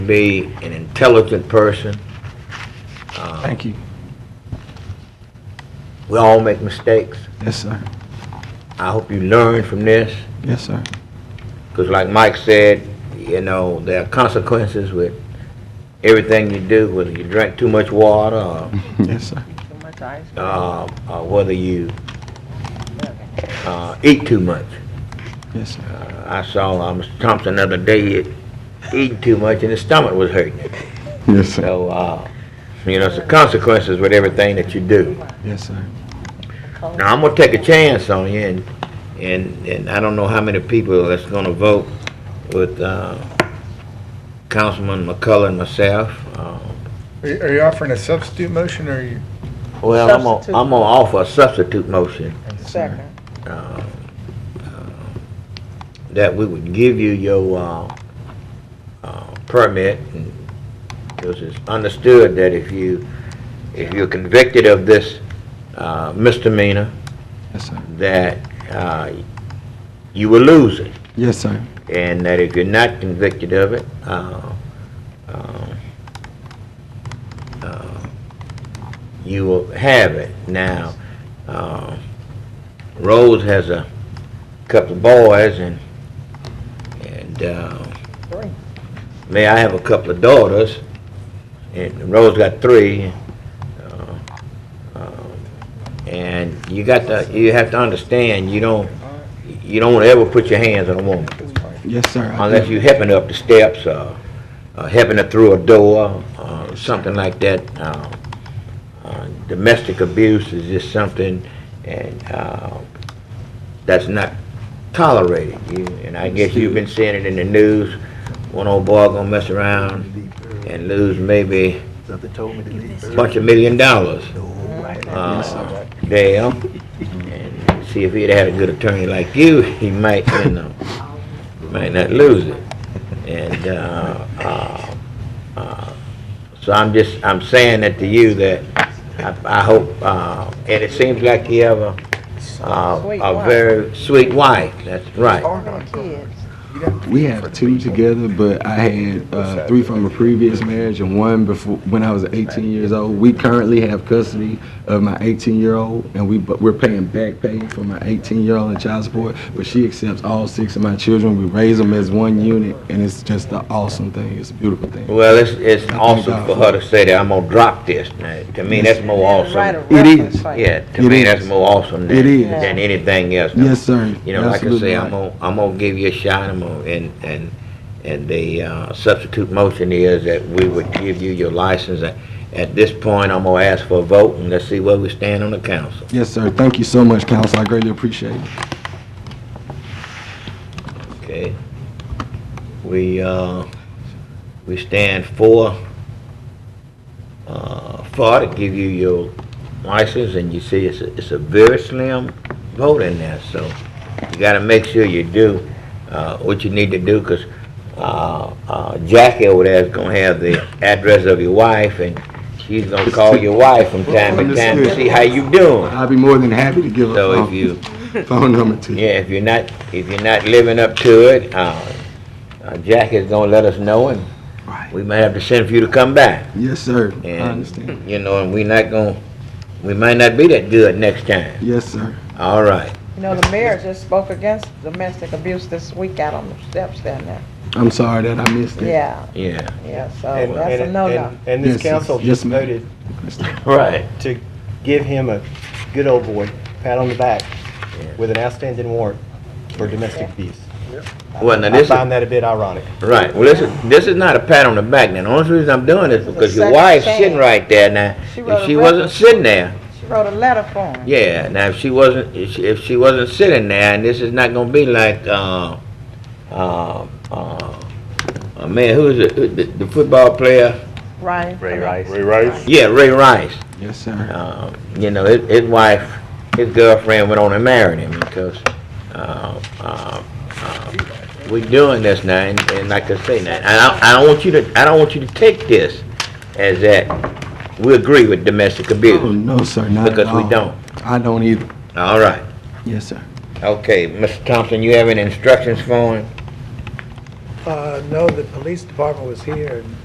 be an intelligent person. Uh, Thank you. We all make mistakes. Yes, sir. I hope you learn from this, Yes, sir. because like Mike said, you know, there are consequences with everything you do, whether you drink too much water, or, Yes, sir. Too much ice. uh, or whether you uh, eat too much. Yes, sir. Uh, I saw uh, Mr. Thompson the other day eating too much, and his stomach was hurting him. Yes, sir. So, uh, you know, it's the consequences with everything that you do. Yes, sir. cold. Now, I'm gonna take a chance on you, and, and, and I don't know how many people that's gonna vote with, uh, Councilman McCullough and myself. Uh, Are you- Are you offering a substitute motion, or are you? Well, I'm gonna, Substitute. I'm gonna offer a substitute motion, Second. uh, uh, that we would give you your, uh, uh, permit, and, because it's understood that if you, if you're convicted of this, uh, misdemeanor, Yes, sir. that, uh, you will lose it. Yes, sir. and that if you're not convicted of it, uh, uh, uh, you will have it. Now, uh, Rose has a couple of boys, and and uh, Three. may I have a couple of daughters, and Rose got three. uh, uh, And you got to, you have to understand, you don't, you don't ever put your hands on a woman Yes, sir. I unless do. you helping her up the steps, uh, uh, helping her through a door, uh, something like that. Uh, uh, domestic abuse is just something, and uh, that's not tolerated. You, and I guess you've been seeing it in the news. One old boy gonna mess around and lose maybe Something told me to leave a early. bunch of million dollars uh, Yes, there. And see if he'd had a good attorney like you, he might, you know, might not lose it. And, uh, uh, uh, so I'm just, I'm saying that to you that I, I hope, uh, and it seems like you have a, uh, Sweet a wife. very sweet wife, that's right. Three kids. We have two together, but I had uh, three from a previous marriage and one before when I was 18 years old. We currently have custody of my 18-year-old, and we but we're paying back pay for my 18-year-old and child support. But she accepts all six of my children. We raise them as one unit, and it's just an awesome thing. It's a beautiful thing. Well, it's, it's awesome for her to say that, I'm gonna drop this. Now, to me, that's more awesome. Right a It reference, is. like- Yeah, to It me, is. that's more awesome It than, is. than anything else. Yes, sir. You know, like I Absolutely say, I'm gonna, right. I'm gonna give you a shot, I'm gonna, and, and, and the uh, substitute motion is that we would give you your license. At- At this point, I'm gonna ask for a vote, and let's see where we stand on the council. Yes, sir. Thank you so much, counsel. I greatly appreciate it. Okay. We, uh, we stand for, uh, for to give you your license, and you see it's, a- it's a very slim vote in there, so you gotta make sure you do, uh, what you need to do, 'cause, uh, uh, Jackie over there is gonna have the address of your wife, and she's gonna call your wife from time to time to see how you doing. I'd be more than happy to give a So if phone- you, phone number to you. yeah, if you're not, if you're not living up to it, uh, uh, Jack is gonna let us know, and Right. we might have to send for you to come back. Yes, sir. I And, understand. You know, and we not gonna, we might not be that good next time. Yes, sir. All right. You know, the mayor just spoke against domestic abuse this week out on the steps down there. I'm sorry that I missed it. Yeah, Yeah. yeah, so And- that's a and- no-no. and- And this Yes, yes, council yes, just ma'am. voted Right. to give him a good old boy, pat on the back, with an outstanding warrant for domestic abuse. Well, now I this is, find that a bit ironic. right. Well, this is, this is not a pat on the back. Now, the only reason I'm doing this a because your second wife's chance. sitting right there now. She wrote If a she wasn't reference. sitting there, She wrote a letter for him. yeah. Now, if she wasn't, if she, if she wasn't sitting there, and this is not gonna be like, uh, uh, uh, uh, man, who is it? Who- The, the football player? Ryan. Ray Rice. Yeah, Ray Rice. Yes, sir. Um, you know, his, his wife, his girlfriend went on and married him because uh, uh, uh, we're doing this now, and, and like I say now, and I, I don't want you to, I don't want you to take this as that we agree with domestic Oh, abuse no, sir, not at because we all. don't. I don't either. All right, Yes, sir. okay, Mr. Thompson, you have any instructions for him? Uh, No, the police department was here, and